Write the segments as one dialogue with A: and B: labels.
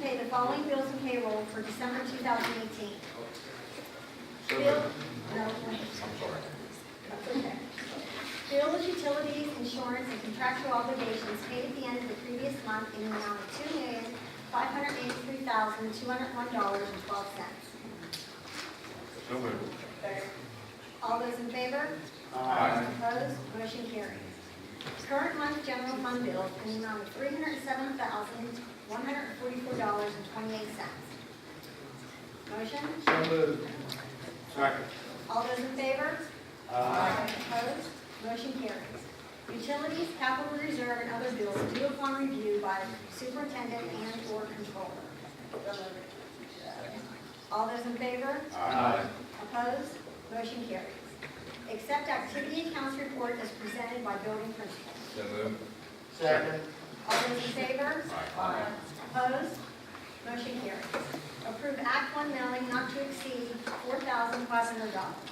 A: pay the following bills and payroll for December 2018.
B: So
A: Bill,
B: moved.
A: no, wait,
B: I'm sorry.
A: that's okay. Bill with utilities, insurance, and contractual obligations paid at the end of the previous month in the amount of $2,583,201.12.
B: So moved.
A: All those in favor?
B: Aye.
A: Opposed, motion carries. Current month general fund bill in the amount of three hundred and seven thousand, one hundred and forty-four dollars and twenty-eight cents. Motion,
C: So moved.
B: Second.
A: all those in favor? Aye. Opposed, motion carries. Utilities, capital reserve, and other bills due upon review by superintendent and/or controller. All those in favor?
B: Aye.
A: Opposed? Motion carries. Accept activity accounts report as presented by building principal.
B: So moved.
C: Second.
A: All those in favor?
B: Aye.
A: Opposed? Motion carries. Approve Act One mailing not to exceed four thousand five hundred dollars.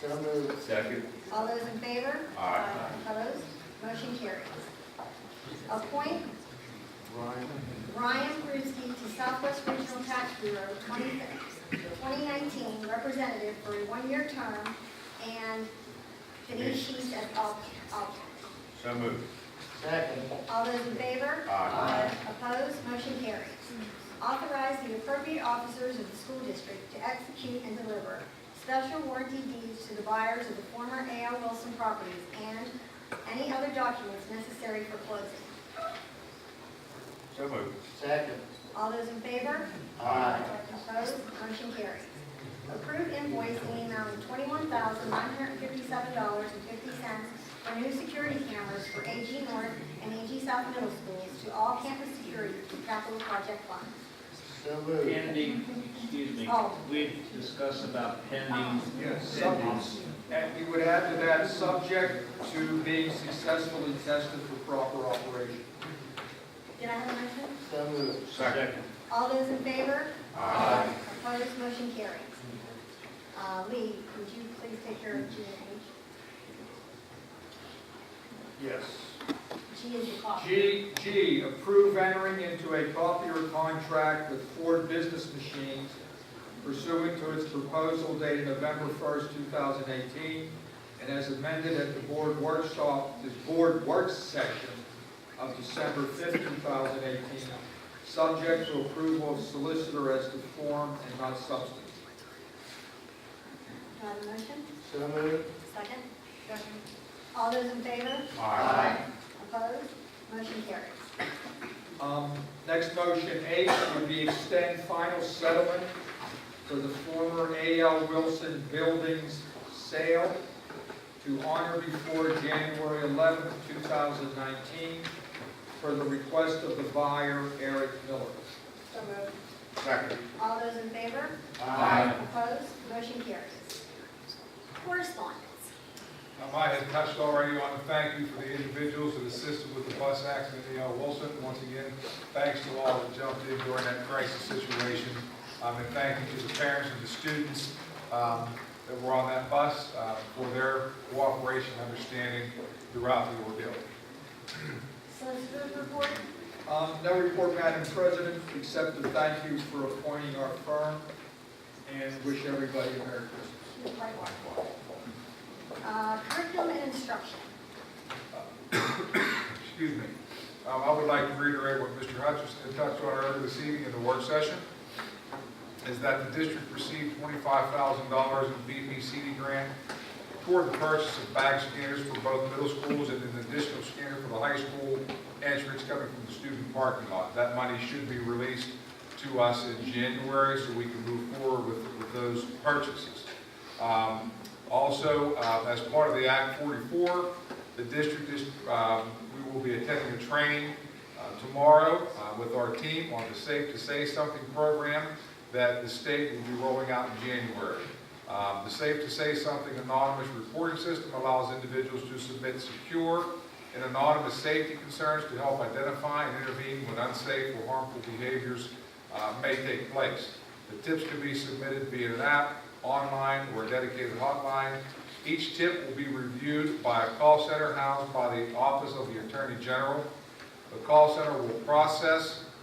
C: So moved.
B: Second.
A: All those in favor?
B: Aye.
A: Opposed? Motion carries. Appoint Ryan Bruski to Southwest Regional Tax Bureau 2019 representative for a one-year term and Denise Sheets as alternate.
B: So moved.
C: Second.
A: All those in favor?
B: Aye.
A: Opposed? Motion carries. Authorize the appropriate officers of the school district to execute and deliver special warranty deeds to the buyers of the former A.L. Wilson properties and any other documents necessary for closing.
B: So moved.
C: Second.
A: All those in favor?
C: Aye.
A: Opposed, motion carries. Approve invoice in the amount of twenty-one thousand nine hundred fifty-seven dollars and fifty cents for new security cameras for AG North and AG South Middle Schools to all campus security through capital project funds.
C: So moved.
D: Pending, excuse me,
A: Oh.
D: we discussed about pending.
E: Yes,
D: Pending.
E: and we would add to that, subject to being successfully tested for proper operation.
A: Did I have a motion?
C: So moved.
B: Second.
A: All those in favor?
B: Aye.
A: Opposed, motion carries. Uh, Lee, would you please take care of G
E: Yes.
A: and H? G is the cost.
E: G, G, approve entering into a copier contract with Ford Business Machines pursuant to its proposal dated November 1st, 2018, and as amended at the board workshop, the board work session of December 5th, 2018, subject to approval of solicitor as to form and not substance.
A: Do I have a motion?
C: So moved.
A: Second? Second. All those in favor?
B: Aye.
A: Opposed? Motion carries.
E: Um, Next motion, H, would be extend final settlement for the former A.L. Wilson Buildings sale to honor before January 11, 2019, for the request of the buyer, Eric Miller.
A: So moved.
B: Second.
A: All those in favor?
B: Aye.
A: Opposed? Motion carries. Correspondence.
F: Um, I had touched already on the thank you for the individuals that assisted with the bus accident, A.L. Wilson. Once again, thanks to all that jumped in during that crisis situation. Um, And thank you to the parents and the students um, that were on that bus uh, for their cooperation, and understanding throughout the ordeal.
A: Solicitor's report.
E: Um, No report, Madam President, except to thank you for appointing our firm and wish everybody a Merry Christmas.
A: Uh, Curriculum and instruction.
F: excuse me, Um, I would like to reiterate what Mr. Hutchinson touched on earlier this evening in the work session, is that the district received twenty-five thousand dollars in BPCD grant toward the purchase of bag scanners for both middle schools and an additional scanner for the high school entrance coming from the student parking lot. That money should be released to us in January so we can move forward with, with those purchases. Um, Also, uh, as part of the Act forty-four, the district is, um, we will be attending a training uh, tomorrow uh, with our team on the Safe to Say Something program that the state will be rolling out in January. Um, The Safe to Say Something anonymous reporting system allows individuals to submit secure and anonymous safety concerns to help identify and intervene when unsafe or harmful behaviors uh, may take place. The tips can be submitted via an app, online, or a dedicated hotline. Each tip will be reviewed by a call center housed by the Office of the Attorney General. The call center will process